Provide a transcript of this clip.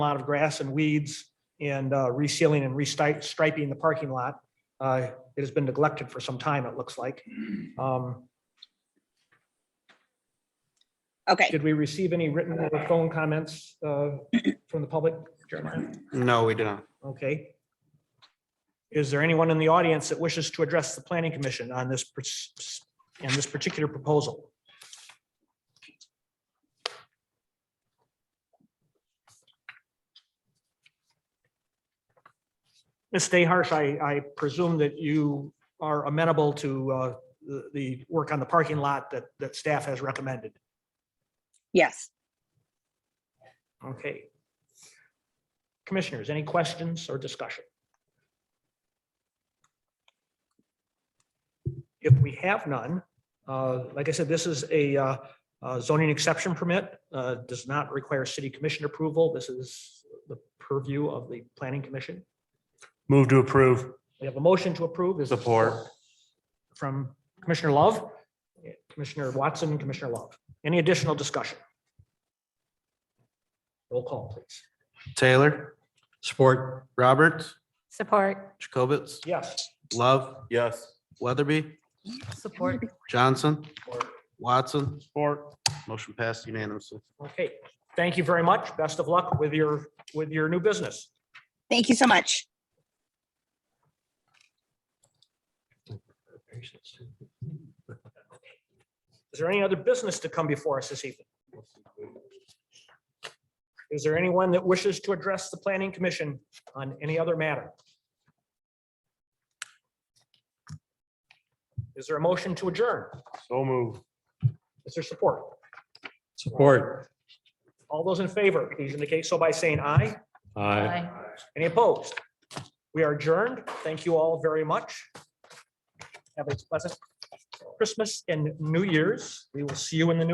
lot of grass and weeds and uh, resealing and restriping the parking lot. Uh, It has been neglected for some time, it looks like. Um, Okay, Did we receive any written or phone comments uh, from the public? No, we do not. Okay. Is there anyone in the audience that wishes to address the planning commission on this, pers- on this particular proposal? Ms. Dayharsh, I, I presume that you are amenable to uh, the, the work on the parking lot that, that staff has recommended. yes. Okay. Commissioners, any questions or discussion? If we have none, uh, like I said, this is a uh, uh, zoning exception permit, uh, does not require city commission approval. This is the purview of the planning commission. Move to approve. We have a motion to approve. Is there Support. From Commissioner Love, Commissioner Watson, Commissioner Love. Any additional discussion? Roll call, please. Taylor. Support. Roberts, Support. Jacobitz, Yes. Love, Yes. Weatherby, Support. Johnson, Watson. Support. Motion passed unanimously. Okay, thank you very much. Best of luck with your, with your new business. Thank you so much. Is there any other business to come before us this evening? Is there anyone that wishes to address the planning commission on any other matter? Is there a motion to adjourn? So move. Is there support? Support. All those in favor, please indicate so by saying aye. Aye. Any opposed? We are adjourned. Thank you all very much. Have a pleasant Christmas and New Year's. We will see you in the new.